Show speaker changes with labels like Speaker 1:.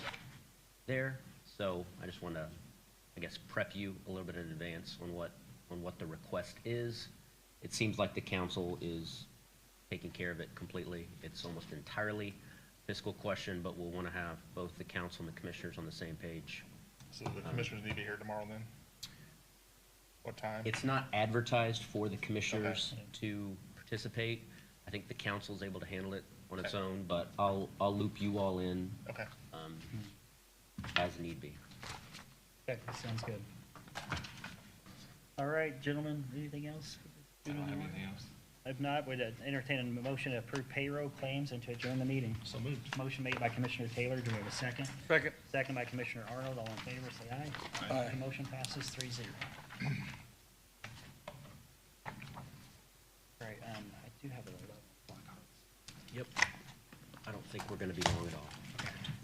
Speaker 1: there. So I just want to, I guess, prep you a little bit in advance on what, on what the request is. It seems like the council is taking care of it completely. It's almost entirely fiscal question, but we'll want to have both the council and the commissioners on the same page.
Speaker 2: So the commissioners need to hear tomorrow then? What time?
Speaker 1: It's not advertised for the commissioners to participate. I think the council's able to handle it on its own, but I'll, I'll loop you all in
Speaker 2: Okay.
Speaker 1: um, as need be.
Speaker 3: Okay, sounds good. All right, gentlemen, anything else? If not, we'd entertain a motion to approve payroll claims and to adjourn the meeting.
Speaker 2: So moved.
Speaker 3: Motion made by Commissioner Taylor, do we have a second?
Speaker 4: Second.
Speaker 3: Second by Commissioner Arnold, all in favor, say aye.
Speaker 4: Aye.
Speaker 3: The motion passes three zero. All right, um, I do have a little.
Speaker 1: Yep. I don't think we're going to be long at all.